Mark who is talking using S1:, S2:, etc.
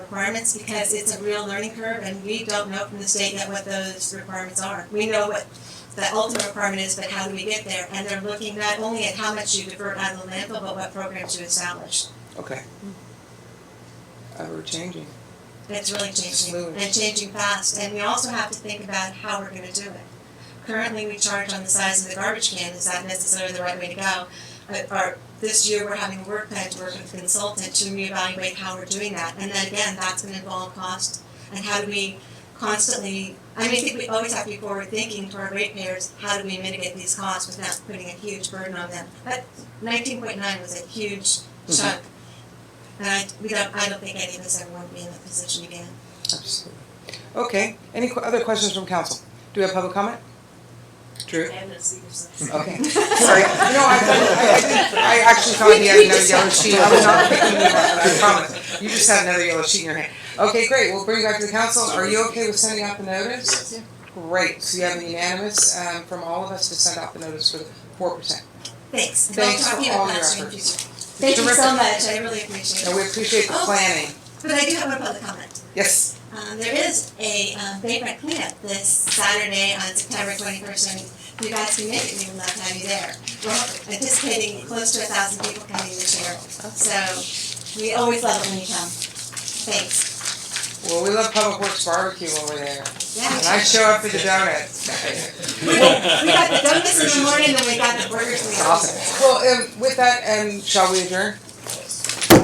S1: requirements because it's a real learning curve and we don't know from the state yet what those requirements are. We know what the ultimate requirement is, but how do we get there? And they're looking not only at how much you divert out of the landfill, but what programs you establish.
S2: Okay. Uh, we're changing.
S1: It's really changing
S2: Smooth.
S1: and changing fast, and we also have to think about how we're gonna do it. Currently, we charge on the size of the garbage can, is that necessarily the right way to go? But our, this year, we're having a work plan to work with a consultant to reevaluate how we're doing that, and then again, that's gonna involve cost. And how do we constantly, I mean, I think we always have to be forward thinking to our ratepayers, how do we mitigate these costs without putting a huge burden on them? But nineteen point nine was a huge
S2: Mhm.
S1: chunk. And I, we don't, I don't think any of us ever want to be in that position again.
S2: Absolutely. Okay. Any qu- other questions from council? Do we have public comment? Drew? Okay. Sorry. No, I, I, I, didn't- I actually thought he had another yellow sheet. I was not picking you up. I promise. You just had another yellow sheet in your hand. Okay, great. We'll bring you back to the council. Are you okay with sending out the notice? Great. So you have an unanimous um, from all of us to send out the notice for the four percent.
S1: Thanks. And
S2: Thanks
S1: I'll talk
S2: for
S1: to you about
S2: all your
S1: that in the
S2: efforts.
S1: future. Thank you so much, I really appreciate
S2: And
S1: it.
S2: we appreciate the planning.
S1: But I do have one public comment.
S2: Yes.
S1: Um, there is a, um, vagrant cleanup this Saturday on September twenty-first, and if you guys can make it, we would love to have you there. We're anticipating close to a thousand people coming this year, so we always love it when you come. Thanks.
S2: Well, we love Public Works barbecue over there. And I
S1: Yeah.
S2: show up for the donuts.
S1: We got we got the donuts in the morning, then we got the burgers in the afternoon.
S2: Awesome. Well, um, with that, um, shall we adjourn?